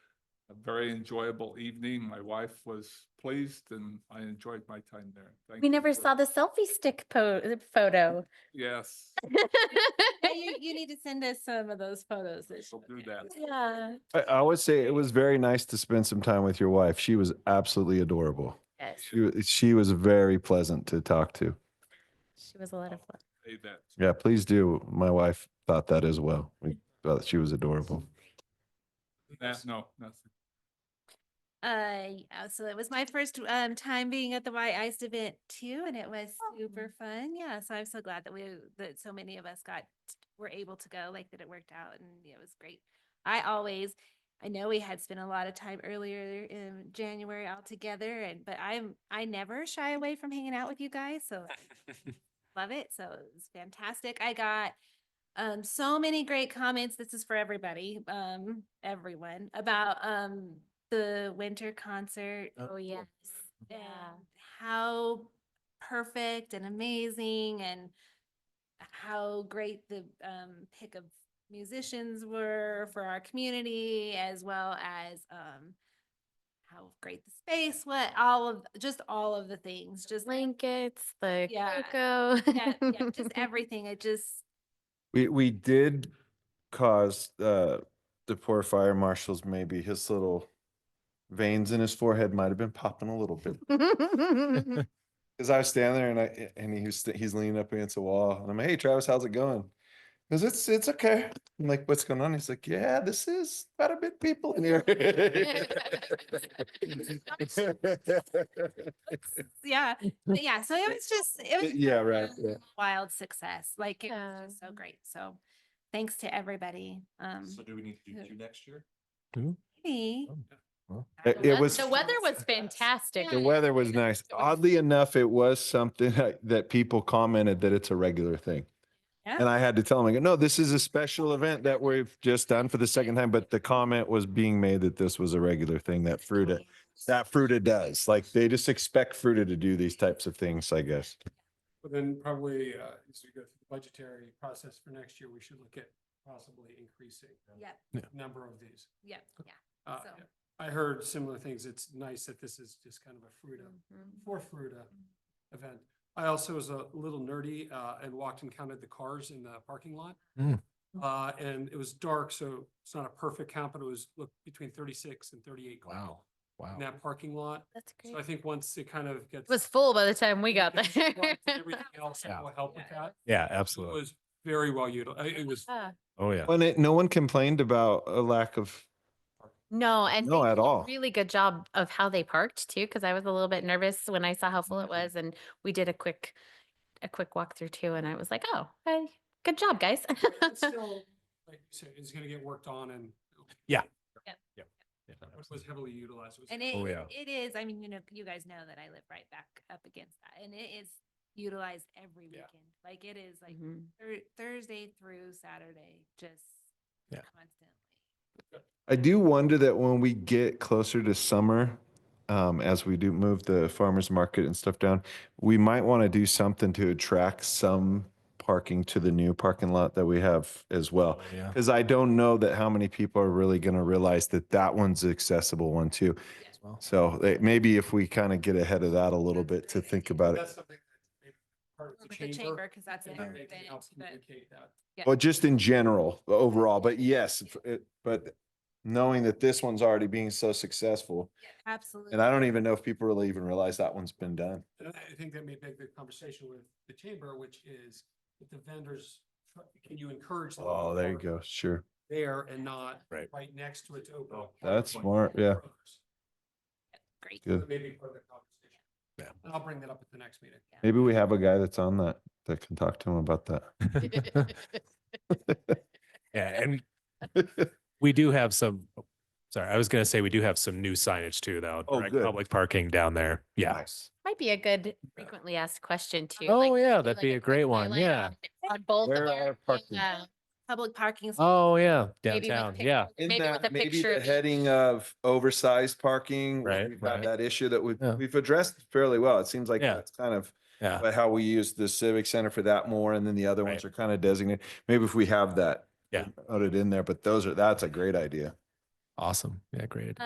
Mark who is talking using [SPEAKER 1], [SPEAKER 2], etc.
[SPEAKER 1] very enjoyable evening. My wife was pleased and I enjoyed my time there. Thank
[SPEAKER 2] We
[SPEAKER 1] you
[SPEAKER 2] never
[SPEAKER 1] for-
[SPEAKER 2] saw the selfie stick po- uh, photo.
[SPEAKER 1] Yes,
[SPEAKER 3] You, you need to send us some of those photos. that
[SPEAKER 1] we'll do
[SPEAKER 3] she-
[SPEAKER 1] that.
[SPEAKER 2] Yeah,
[SPEAKER 4] I, I would say it was very nice to spend some time with your wife. She was absolutely adorable.
[SPEAKER 2] yes,
[SPEAKER 4] She, wa- she was very pleasant to talk to.
[SPEAKER 2] she was a lot of fun.
[SPEAKER 1] Say that.
[SPEAKER 4] Yeah, please do. My wife thought that as well. We thought that she was adorable.
[SPEAKER 1] Nah, No, nothing.
[SPEAKER 3] Uh, yeah, so it was my first um time being at the Y Ice event too, and it was super fun. Yeah, so I'm so glad that we, that so many of us got, were able to go, like that it worked out and it was great. I always, I know we had spent a lot of time earlier in January all together and, but I'm, I never shy away from hanging out with you guys, so love it. So it was fantastic. I got um so many great comments. This is for everybody, um, everyone about um the winter concert.
[SPEAKER 2] Oh, yes. Yeah.
[SPEAKER 3] and How perfect and amazing and how great the um pick of musicians were for our community as well as um how great the space, what all of just all of the things, just
[SPEAKER 2] Blankets, the
[SPEAKER 3] Yeah.
[SPEAKER 2] cocoa.
[SPEAKER 3] yeah, yeah, just everything. It just
[SPEAKER 4] We we did cause uh the poor fire marshal's maybe his little veins in his forehead might have been popping a little bit. Cause I was standing there and I and he was st- he's leaning up against a wall and I'm hey Travis how's it going? Cause it's it's okay. I'm like what's going on? He's like yeah this is about a bit people in here.
[SPEAKER 3] yeah, but yeah. So it was just it was
[SPEAKER 4] yeah right yeah.
[SPEAKER 3] wild success. Like it was just so
[SPEAKER 2] Yeah.
[SPEAKER 3] great. So thanks to everybody. Um,
[SPEAKER 5] So do we need to do
[SPEAKER 3] who-
[SPEAKER 5] two next year?
[SPEAKER 3] hey,
[SPEAKER 4] It-
[SPEAKER 3] The
[SPEAKER 4] it was
[SPEAKER 2] The weather was fantastic.
[SPEAKER 4] The weather was nice. Oddly enough, it was something that- that people commented that it's a regular thing.
[SPEAKER 3] Yeah.
[SPEAKER 4] And I had to tell them, I go, no, this is a special event that we've just done for the second time, but the comment was being made that this was a regular thing that Fruta, that Fruta does. Like they just expect Fruta to do these types of things, I guess.
[SPEAKER 6] But then probably, uh, as we go through the budgetary process for next year, we should look at possibly increasing. the
[SPEAKER 3] Yep,
[SPEAKER 6] Number of these.
[SPEAKER 3] yep, yeah.
[SPEAKER 6] Uh,
[SPEAKER 3] So-
[SPEAKER 6] I heard similar things. It's nice that this is just kind of a Fruita,
[SPEAKER 2] Mm-hmm.
[SPEAKER 3] mm-hmm.
[SPEAKER 6] for Fruita event. I also was a little nerdy, uh, and walked and counted the cars in the parking lot.
[SPEAKER 4] Mm.
[SPEAKER 6] Uh, and it was dark, so it's not a perfect count, but it was, look, between thirty-six and thirty-eight. cars
[SPEAKER 4] Wow.
[SPEAKER 6] In that parking lot.
[SPEAKER 2] That's
[SPEAKER 6] So I
[SPEAKER 2] great.
[SPEAKER 6] think once it kind of gets.
[SPEAKER 2] It was full by the time we
[SPEAKER 6] Yeah,
[SPEAKER 2] got
[SPEAKER 6] because it's
[SPEAKER 2] there.
[SPEAKER 6] lights and Everything else that will help with that.
[SPEAKER 7] Yeah,
[SPEAKER 6] It
[SPEAKER 7] absolutely.
[SPEAKER 6] was very well utilized. It was,
[SPEAKER 2] Yeah.
[SPEAKER 7] Oh, yeah.
[SPEAKER 4] When it, no one complained about a lack of,
[SPEAKER 2] No, and
[SPEAKER 4] no,
[SPEAKER 2] they
[SPEAKER 4] at
[SPEAKER 2] did a
[SPEAKER 4] all.
[SPEAKER 2] Really good job of how they parked too, because I was a little bit nervous when I saw how full it
[SPEAKER 4] Mm-hmm.
[SPEAKER 2] was and we did a quick, a quick walkthrough too. And I was like, oh, hey, good job, guys.
[SPEAKER 6] it's still, like you said, it's gonna get worked on and
[SPEAKER 7] Yeah,
[SPEAKER 6] it was heavily utilized. It was-
[SPEAKER 3] And it,
[SPEAKER 7] Oh, yeah.
[SPEAKER 3] it is, I mean, you know, you guys know that I live right back up against that and it is utilized every
[SPEAKER 6] Yeah.
[SPEAKER 3] weekend. Like it is
[SPEAKER 4] Mm-hmm.
[SPEAKER 3] like
[SPEAKER 2] Mhm.
[SPEAKER 3] thur- Thursday through Saturday, just
[SPEAKER 7] Yeah.
[SPEAKER 3] constantly.
[SPEAKER 4] I do wonder that when we get closer to summer, um, as we do move the farmers market and stuff down, we might want to do something to attract some parking to the new parking lot that we have as well.
[SPEAKER 7] Yeah.
[SPEAKER 4] Because I don't know that how many people are really going to realize that that one's accessible one too. So eh, maybe if we kind of get ahead of that a little bit to think about it,
[SPEAKER 6] That's something that's maybe part of
[SPEAKER 3] With the chamber, because that's
[SPEAKER 6] and
[SPEAKER 3] an
[SPEAKER 6] then they can
[SPEAKER 3] event,
[SPEAKER 6] help
[SPEAKER 3] but
[SPEAKER 6] communicate that.
[SPEAKER 4] or just in general, overall. But yes, if it, but knowing that this one's already being so successful,
[SPEAKER 3] absolutely.
[SPEAKER 4] and I don't even know if people really even realize that one's been done.
[SPEAKER 6] And I I think that may beg the conversation with the chamber, which is if the vendors, tr- can you encourage? them to
[SPEAKER 4] Oh, there you
[SPEAKER 6] park
[SPEAKER 4] go. Sure.
[SPEAKER 6] There and not
[SPEAKER 7] Right.
[SPEAKER 6] right next to it to open. up
[SPEAKER 4] That's
[SPEAKER 6] parking.
[SPEAKER 4] smart. Yeah.
[SPEAKER 3] Great.
[SPEAKER 4] Good.
[SPEAKER 6] Maybe part of the conversation.
[SPEAKER 7] Yeah.
[SPEAKER 6] And I'll bring that up at the next meeting.
[SPEAKER 4] Maybe we have a guy that's on that that can talk to him about that.
[SPEAKER 7] Yeah, and we do have some, oh, sorry, I was gonna say we do have some new signage too, though.
[SPEAKER 4] Oh,
[SPEAKER 7] direct
[SPEAKER 4] good.
[SPEAKER 7] Public parking down there. Yeah.
[SPEAKER 4] Nice.
[SPEAKER 2] Might be a good frequently asked question too.
[SPEAKER 7] Oh,
[SPEAKER 2] like,
[SPEAKER 7] yeah,
[SPEAKER 2] do
[SPEAKER 7] that'd
[SPEAKER 2] like
[SPEAKER 7] be a
[SPEAKER 2] quick
[SPEAKER 7] great one,
[SPEAKER 2] highlight
[SPEAKER 7] yeah.
[SPEAKER 2] on- On both of
[SPEAKER 4] Where
[SPEAKER 2] our.
[SPEAKER 4] are parking-
[SPEAKER 2] yeah,
[SPEAKER 3] Public parking. spaces.
[SPEAKER 7] Oh, yeah,
[SPEAKER 2] maybe with
[SPEAKER 7] downtown. Yeah.
[SPEAKER 2] pictures-
[SPEAKER 4] In
[SPEAKER 2] Maybe with a
[SPEAKER 4] that, maybe
[SPEAKER 2] picture.
[SPEAKER 4] the
[SPEAKER 2] of each.
[SPEAKER 4] heading of oversized parking. where
[SPEAKER 7] Right,
[SPEAKER 4] We've got
[SPEAKER 7] right.
[SPEAKER 4] that issue that we've,
[SPEAKER 7] Yeah.
[SPEAKER 4] we've addressed fairly well. It seems like
[SPEAKER 7] Yeah.
[SPEAKER 4] that's kind of
[SPEAKER 7] Yeah.
[SPEAKER 4] how we use the civic center for that more. And then the other ones are kind of designated. Maybe if we have that
[SPEAKER 7] Yeah.
[SPEAKER 4] noted in there, but those are, that's a great idea.
[SPEAKER 7] Awesome. Yeah, great.